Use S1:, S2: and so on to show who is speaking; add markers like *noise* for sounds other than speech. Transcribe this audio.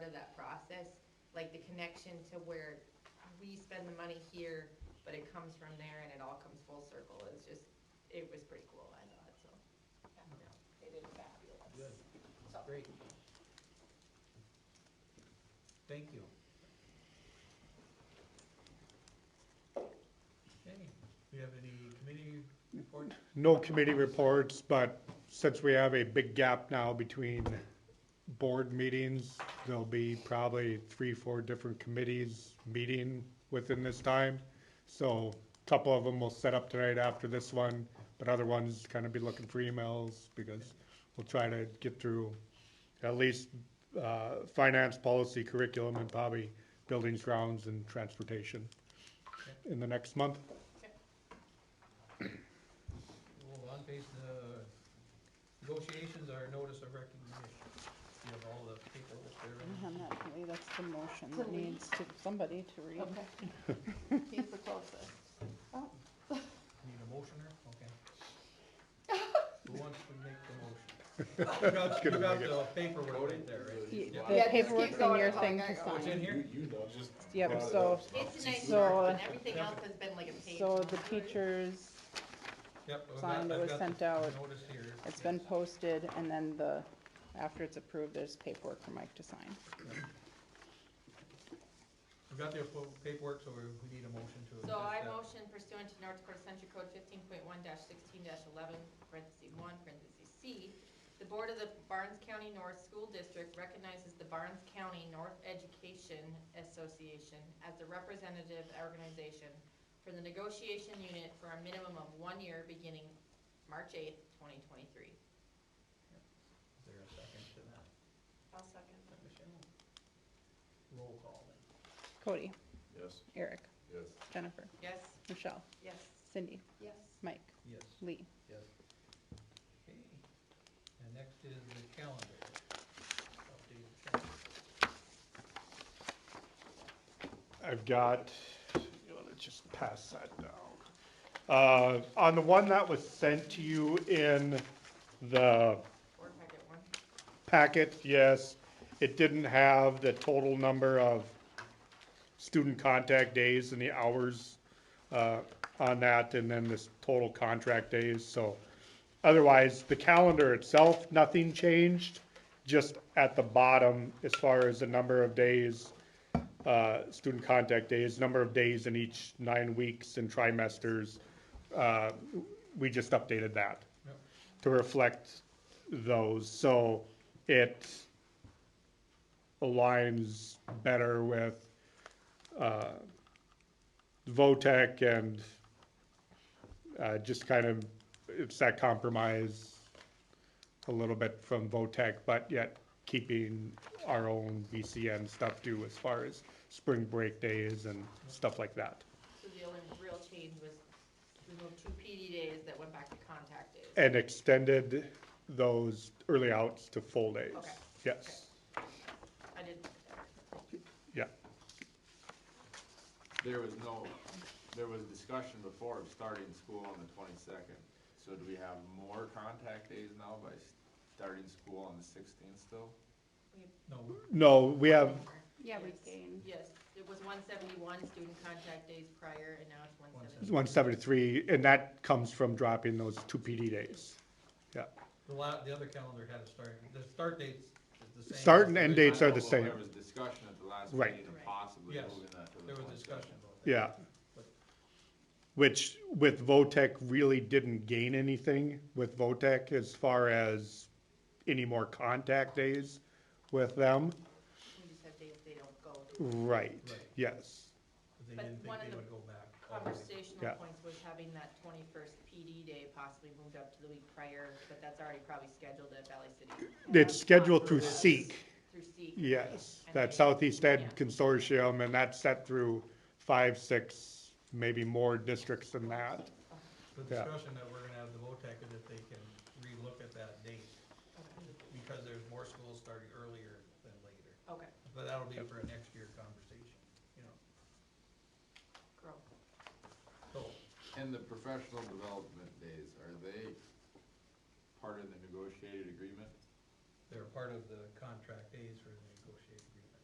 S1: like the connection to where we spend the money here, but it comes from there and it all comes full circle is just, it was pretty cool, I thought, so.
S2: Yeah, no, They did fabulous.
S3: Good.
S2: So-
S3: Great. Thank you. Okay, do you have any committee reports?
S4: No committee reports, but since we have a big gap now between board meetings, there'll be probably three, four different committees meeting within this time. So a couple of them will set up tonight after this one, but other ones kind of be looking for emails because we'll try to get through at least uh, finance, policy, curriculum, and probably buildings, grounds, and transportation in the next month.
S3: Well, on page, the negotiations are notice of recognition. You have all the paperwork
S5: I
S3: there.
S5: don't have that, really. that's the motion that
S2: Can we-
S5: needs to, somebody to read.
S2: Okay. He's the closest.
S3: Need a motioner? Okay.
S5: *laughs*
S3: Who wants to make the
S4: *laughs*
S3: motion? You
S4: gonna
S3: got
S4: make
S3: the paperwork right there, right?
S5: Y-
S3: Yeah.
S5: The
S2: Yeah, just keep
S5: paperwork's in
S2: going
S5: your
S2: until I
S5: thing
S2: got
S5: to
S2: it
S3: Oh, it's in
S5: sign.
S3: here?
S6: You know, just.
S5: Yep, so,
S1: It's a nice
S5: So- uh,
S1: part, but everything else has been like a page.
S5: so the
S1: long.
S5: teachers,
S3: Yep. I've got-
S5: Signed, it
S3: I've
S5: was
S3: got
S5: sent
S3: the
S5: out.
S3: Notice here.
S5: it's been
S3: Yes.
S5: posted, and then the, after it's approved, there's paperwork for Mike to sign.
S3: We've got the full paperwork, so we we need a motion to.
S1: So I
S3: accept that.
S1: motion pursuant to North Dakota Century Code fifteen point one sixteen eleven, parentheses one, parentheses C, the Board of the Barnes County North School District recognizes the Barnes County North Education Association as the representative organization for the negotiation unit for a minimum of one year beginning March eighth, twenty twenty-three.
S3: Is there a second to that?
S1: I'll second.
S3: Michelle? Roll call then.
S5: Cody,
S6: Yes,
S5: Eric,
S6: yes.
S5: Jennifer,
S1: Yes?
S5: Michelle,
S1: Yes.
S5: Cindy,
S1: Yes.
S5: Mike,
S3: Yes.
S5: Lee.
S3: Yes. Okay, and next is the calendar. Updated calendar.
S4: I've got, you wanna just pass that down. Uh, on the one that was sent to you in the
S1: Or if I get one.
S4: packet, yes, it didn't have the total number of student contact days and the hours, uh, on that, and then this total contract days, so. Otherwise, the calendar itself, nothing changed, just at the bottom, as far as the number of days, uh, student contact days, number of days in each nine weeks and trimesters, uh, we just updated that
S3: Yep.
S4: to reflect those, so it aligns better with, uh, VOTEC and, uh, just kind of, it's that compromise a little bit from VOTEC, but yet keeping our own BCN stuff too as far as spring break days and stuff like that.
S1: So the only real change was we moved two PD days that went back to contact days.
S4: And extended those early outs to full days.
S1: Okay.
S4: Yes,
S1: I did,
S4: yeah.
S7: There was no, there was discussion before of starting school on the twenty-second. So do we have more contact days now by starting school on the sixteenth still?
S3: No,
S4: No, we have,
S1: Yeah, we Yes.
S5: gained.
S1: yes, it was one seventy-one student contact days prior, and now it's one seventy.
S4: 173, and that comes from dropping those two PD days. Yeah,
S3: the la, the other calendar had a start, the start dates is the same.
S4: Start and end dates are the
S7: I know
S4: same.
S7: There was discussion at the last
S4: Right.
S7: meeting of
S1: Right.
S7: possibly
S3: Yes,
S7: moving that to the
S3: There was
S7: 22nd.
S3: discussion about that.
S4: Yeah. Which with VOTEC really didn't gain anything with VOTEC as far as any more contact days with them.
S1: We just have days they don't go.
S4: Oh, Right,
S3: Right.
S4: yes.
S3: But they
S1: But
S3: didn't
S1: one
S3: think
S1: of
S3: they
S1: the
S3: would go back. all the way.
S1: Conversational
S4: Yeah.
S1: points was having that twenty-first PD day possibly moved up to the week prior, but that's already probably scheduled at Valley City.
S4: It's scheduled through
S1: Yes.
S4: SEEK,
S1: Through SEEK.
S4: yes.
S1: And
S4: That
S1: they-
S4: Southeast
S1: Yeah.
S4: Ed Consortium, and that's set through five, six, maybe more districts than that.
S3: The
S4: Yeah.
S3: discussion that we're gonna have at the VOTEC is if they can relook at that date, because there's more schools starting earlier than later.
S1: Okay,
S3: But that'll be for a next year conversation, you know,
S1: girl.
S3: so,
S7: And the professional development days, are they part of the negotiated agreement?
S3: they're part of the contract days for the negotiating